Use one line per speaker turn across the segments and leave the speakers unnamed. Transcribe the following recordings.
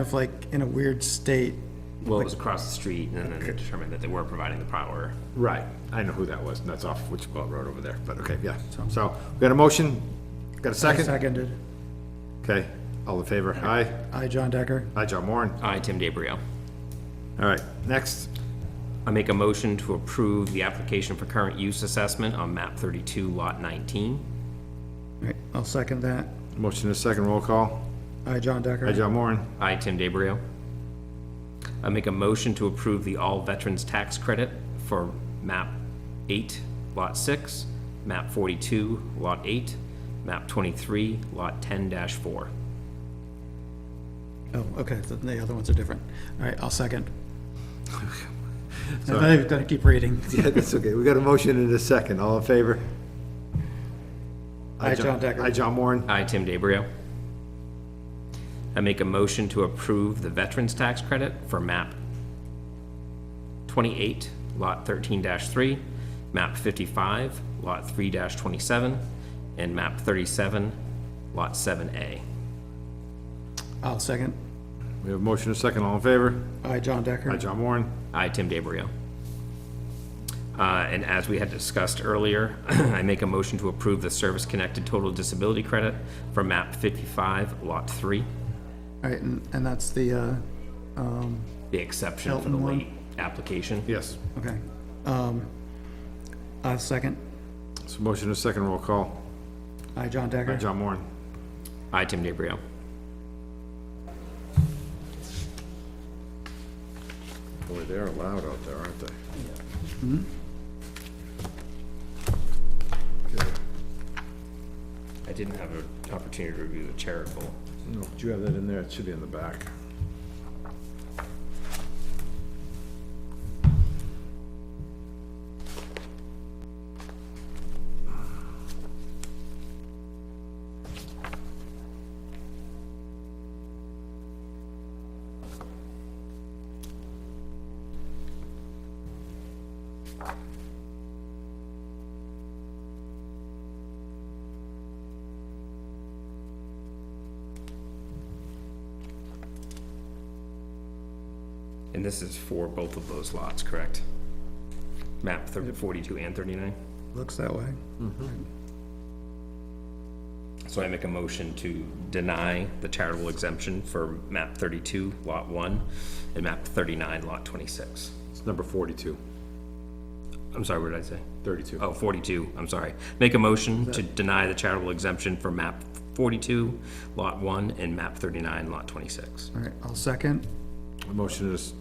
of like in a weird state.
Well, it was across the street and then determined that they were providing the power.
Right, I know who that was, and that's off Wichita Road over there, but okay, yeah. So, we got a motion, got a second?
Seconded.
Okay, all in favor? Aye.
I, John Decker.
Aye, John Warren.
I, Uh, Tim DaBrio.
All right, next.
I make a motion to approve the application for current use assessment on map thirty-two, lot nineteen.
Right, I'll second that.
Motion is second, roll call.
I, John Decker.
Aye, John Warren.
I, Tim DaBrio. I make a motion to approve the all veterans tax credit for map eight, lot six, map forty-two, lot eight, map twenty-three, lot ten four.
Oh, okay, the, the other ones are different. All right, I'll second. I'm not even gonna keep reading.
Yeah, that's okay, we got a motion and a second, all in favor?
I, John Decker.
Aye, John Warren.
I, Tim DaBrio. I make a motion to approve the Veterans Tax Credit for map 28, lot 13-3, map 55, lot 3-27, and map 37, lot 7A.
I'll second.
We have a motion and a second, all in favor?
I, John Decker.
Aye, John Warren.
I, Tim DaBrio. Uh, And as we had discussed earlier, I make a motion to approve the Service-Connected Total Disability Credit for map 55, lot 3,
All right, and, and that's the, uh, um,
the exception for the
Elton one.
late application.
Yes,
okay. Um, I'll second.
so motion and a second, roll call.
I, John
Aye,
Decker.
John Warren.
I, Tim DaBrio.
Boy, they're loud out there, aren't they?
I didn't have an opportunity to review the charitable.
No, do you have that in there? It should be in the back.
And this is for both of those lots, correct? Map thirty, forty-two and thirty-nine?
Looks that way.
So I make a motion to deny the charitable exemption for map thirty-two, lot one, and map thirty-nine, lot twenty-six.
It's number 42,
I'm sorry, what did I say?
32.
Oh, 42, I'm sorry. Make a motion to deny the charitable exemption for map forty-two, lot one, and map thirty-nine, lot twenty-six.
All right, I'll second.
The motion is,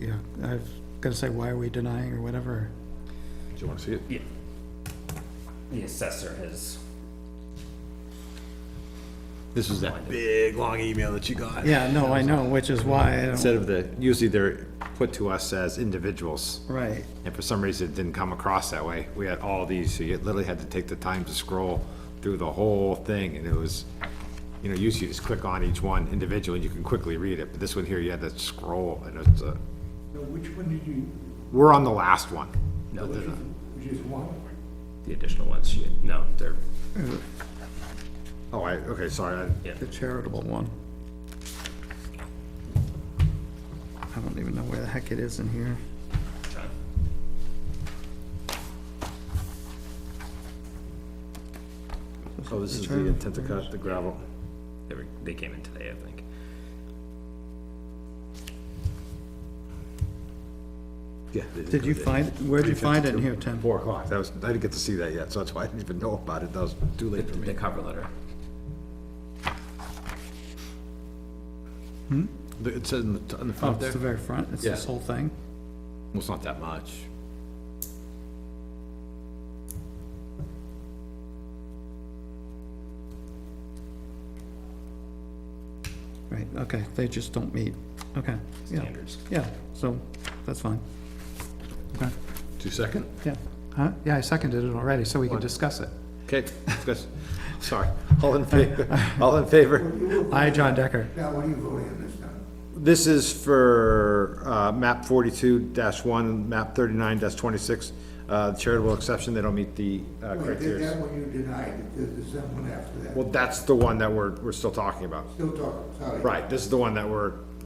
Yeah, I've gotta say, why are we denying or whatever?
do you want to see it?
Yeah. The assessor has
This is that big, long email that you got.
Yeah, no, I know, which is why I don't,
Instead of the, usually they're put to us as individuals,
right.
and for some reason it didn't come across that way. We had all these, so you literally had to take the time to scroll through the whole thing, and it was, you know, usually you just click on each one individually, and you can quickly read it, but this one here, you had to scroll, and it's a,
So which one did you,
we're on the last one.
which is one?
the additional ones, she, no, they're,
Oh, I, okay, sorry, I,
The charitable one. I don't even know where the heck it is in here.
oh, this is the intent to cut the gravel.
they were, they came in today, I think.
Yeah.
Did you find, where'd you find it in here, Tim?
Four o'clock, that was, I didn't get to see that yet, so that's why I didn't even know about it, that was too late for me.
The cover letter.
The- It says in the, in the
Oh,
front
it's
there,
the very front, it's this
Yeah.
whole thing?
Well, it's not that much.
Right, okay, they just don't meet, okay, yeah,
Standards.
yeah, so, that's fine. Okay,
Two second?
yeah, huh, yeah, I seconded it already, so we can discuss it.
Okay, discuss- sorry, all in favor, all in favor?
I, John Decker,
Now, what are you voting on this time?
This is for, uh, map forty-two one, map thirty-nine twenty-six, uh, charitable exception, they don't meet the, uh,
Wait, did that
criteria.
one you denied, if there's the second one after that?
Well, that's the one that we're, we're still talking about.
Still talking, sorry.
Right, this is the one that we're